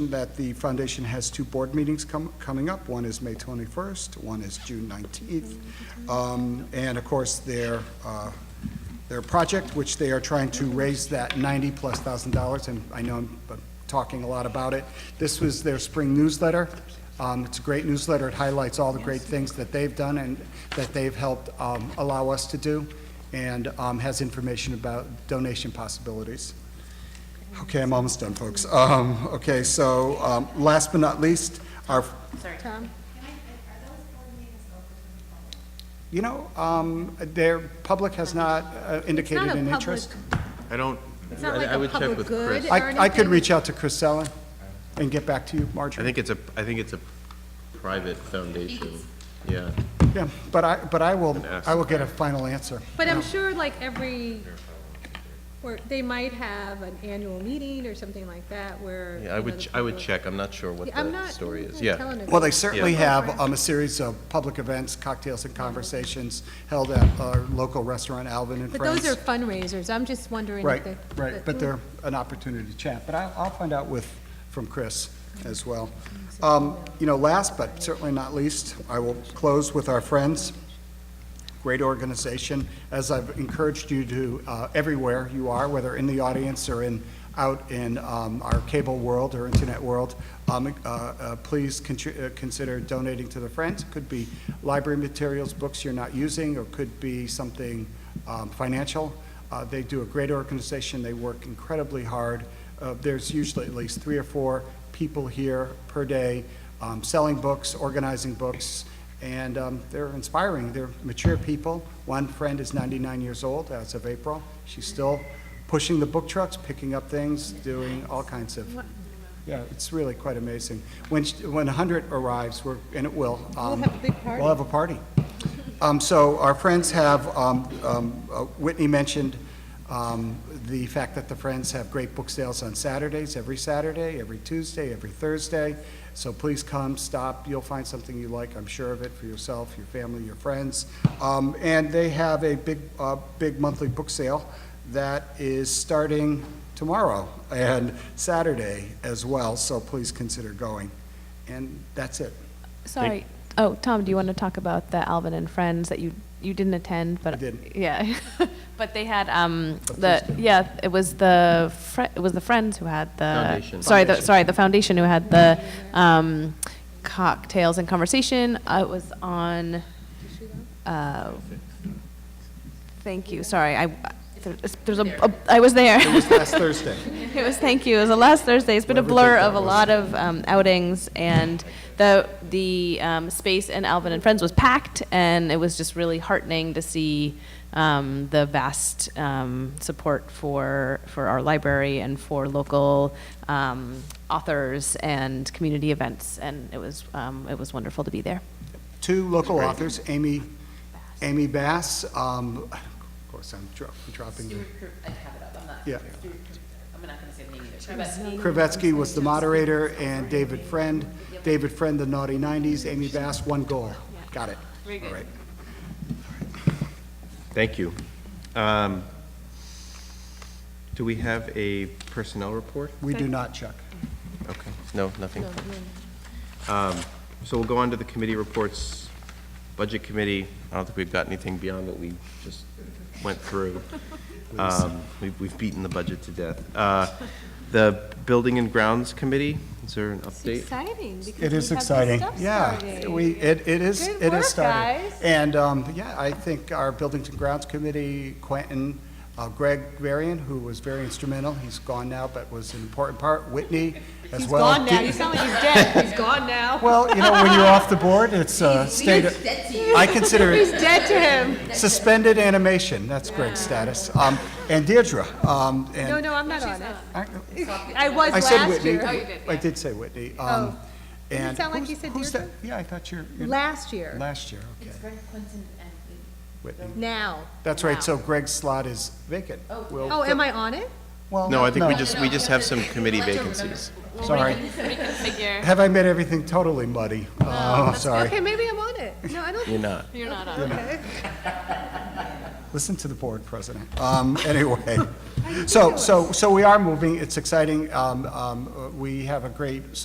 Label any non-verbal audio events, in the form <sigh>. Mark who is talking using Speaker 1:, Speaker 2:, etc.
Speaker 1: that the foundation has two board meetings com- coming up. One is May 21st, one is June 19th. Um, And of course, their, uh, their project, which they are trying to raise that 90-plus thousand dollars, and I know I'm uh, talking a lot about it. This was their spring newsletter. Um, It's a great newsletter. It highlights all the great things that they've done and that they've helped um, allow us to do, and um, has information about donation possibilities. Okay, I'm almost done, folks. Um, Okay, so um, last but not least, our,
Speaker 2: Tom?
Speaker 1: you know, um, their public has not uh, indicated
Speaker 2: not a
Speaker 1: an
Speaker 2: public-
Speaker 1: interest.
Speaker 3: I don't,
Speaker 2: It's not like
Speaker 3: I I
Speaker 2: a
Speaker 3: would check
Speaker 2: public
Speaker 3: with
Speaker 2: good
Speaker 3: Chris.
Speaker 2: or
Speaker 1: I I could
Speaker 2: anything.
Speaker 1: reach out to Chris Sellen and get back to you,
Speaker 3: I
Speaker 1: Marjorie.
Speaker 3: think it's a, I think it's a private foundation, yeah.
Speaker 1: Yeah, but I, but I will,
Speaker 3: And ask
Speaker 1: I will get a final answer.
Speaker 2: But I'm sure like every, or they might have an annual meeting or something like that where.
Speaker 3: Yeah, I
Speaker 2: you know,
Speaker 3: would,
Speaker 2: the
Speaker 3: ch- I would
Speaker 2: public-
Speaker 3: check, I'm not sure what
Speaker 2: Yeah, I'm
Speaker 3: the
Speaker 2: not-
Speaker 3: story
Speaker 2: I'm
Speaker 3: is,
Speaker 2: not
Speaker 3: yeah.
Speaker 2: telling it.
Speaker 1: Well, they certainly
Speaker 3: Yeah.
Speaker 1: have um, a series of public events, cocktails and conversations held at our local restaurant, Alvin and
Speaker 2: But
Speaker 1: Friends.
Speaker 2: those are fundraisers. I'm just wondering if
Speaker 1: Right,
Speaker 2: they.
Speaker 1: right, but they're an opportunity to chat, but I'll, I'll find out with, from Chris as well. Um, You know, last but certainly not least, I will close with our friends. Great organization, as I've encouraged you to, uh, everywhere you are, whether in the audience or in, out in um, our cable world or internet world, um, uh, uh, please contri- uh, consider donating to the Friends. Could be library materials, books you're not using, or could be something um, financial. Uh, They do a great organization, they work incredibly hard. Uh, There's usually at least three or four people here per day um, selling books, organizing books, and um, they're inspiring. They're mature people. One friend is 99 years old as of April. She's still pushing the book trucks, picking up things, doing all kinds of, yeah, it's really quite amazing. When, sh- when 100 arrives, we're, and it will. We'll
Speaker 2: have a big party.
Speaker 1: We'll have a party. Um, So our friends have, um, um, uh, Whitney mentioned um, the fact that the Friends have great book sales on Saturdays, every Saturday, every Tuesday, every Thursday. So please come, stop, you'll find something you like, I'm sure of it, for yourself, your family, your friends. Um, And they have a big, uh, big monthly book sale that is starting tomorrow and Saturday as well, so please consider going. And that's it.
Speaker 4: Sorry. Oh, Tom, do you want to talk about the Alvin and Friends that you, you didn't attend, but?
Speaker 1: I didn't.
Speaker 4: Yeah. <laughs> But they had, um,
Speaker 1: But
Speaker 4: the,
Speaker 1: please do.
Speaker 4: yeah, it was the, fri- it was the Friends who had the.
Speaker 3: Foundation.
Speaker 4: Sorry, the,
Speaker 1: Foundation.
Speaker 4: sorry, the foundation who had the, um, cocktails and conversation. Uh, It was on, uh, thank you, sorry, I, there's- there's a, a- I was there.
Speaker 1: It was last Thursday.
Speaker 4: It was, thank you. It was the last Thursday. It's been a
Speaker 1: Whatever
Speaker 4: blur
Speaker 1: date that
Speaker 4: of a
Speaker 1: was.
Speaker 4: lot of um, outings, and the the um, space in Alvin and Friends was packed, and it was just really heartening to see um, the vast um, support for for our library and for local um, authors and community events, and it was um, it was wonderful to be there.
Speaker 1: two local authors, Amy, Amy Bass, um, of course, I'm dro- dropping the.
Speaker 5: I have it up, I'm not,
Speaker 1: Yeah.
Speaker 5: I'm not gonna say the name either.
Speaker 1: Krivetsky was the moderator, and David Friend. David Friend, the Naughty Nineties, Amy Bass, One Goal. Got it. Very good.
Speaker 3: Thank you. Um, Do we have a personnel report?
Speaker 1: We do not, Chuck.
Speaker 3: Okay, no, nothing. Um, So we'll go on to the committee reports, Budget Committee, I don't think we've got anything beyond what we just went <laughs> through. Um, we've- We've beaten the budget to death. Uh, The Building and Grounds Committee, is there an update?
Speaker 2: Exciting because
Speaker 1: It is exciting. Yeah, we, it, it is,
Speaker 2: Good
Speaker 1: it
Speaker 2: work,
Speaker 1: is starting.
Speaker 2: guys.
Speaker 1: And, um, yeah, I think our Buildings and Grounds Committee, Quentin, uh, Greg Varian, who was very instrumental, he's gone now, but was an important part, Whitney as well. Dee-
Speaker 2: sound like he's dead. He's gone now.
Speaker 1: Well, you know, when you're off the board, it's a state, of- I consider
Speaker 2: He's
Speaker 1: it
Speaker 2: dead to him.
Speaker 1: suspended animation, that's great status. Um, And Deirdre, um,
Speaker 2: No,
Speaker 1: and.
Speaker 2: no, I'm not on it.
Speaker 1: I-
Speaker 2: I was
Speaker 1: I said
Speaker 2: last
Speaker 1: Whitney.
Speaker 2: year.
Speaker 1: I did say Whitney.
Speaker 2: Oh.
Speaker 1: um,
Speaker 2: Did it
Speaker 1: and
Speaker 2: sound like
Speaker 1: who's-
Speaker 2: you said
Speaker 1: who's
Speaker 2: Deirdre?
Speaker 1: that? Yeah, I thought you're, you're-
Speaker 2: Last year,
Speaker 1: last year, okay. Whitney.
Speaker 2: now.
Speaker 1: That's right, so Greg's slot is vacant. We'll
Speaker 2: Oh,
Speaker 1: fill-
Speaker 2: am I on it?
Speaker 1: Well,
Speaker 3: No, I think we just, we just have some committee vacancies.
Speaker 2: <laughs>
Speaker 1: Sorry. Have I made everything totally muddy? Oh, sorry.
Speaker 2: Okay, maybe I'm on it. No, I don't
Speaker 3: You're not.
Speaker 2: Okay.
Speaker 1: Listen to the board, President.
Speaker 2: <laughs>
Speaker 1: Um, Anyway, so, so, so we are moving, it's exciting. Um, um, We have a great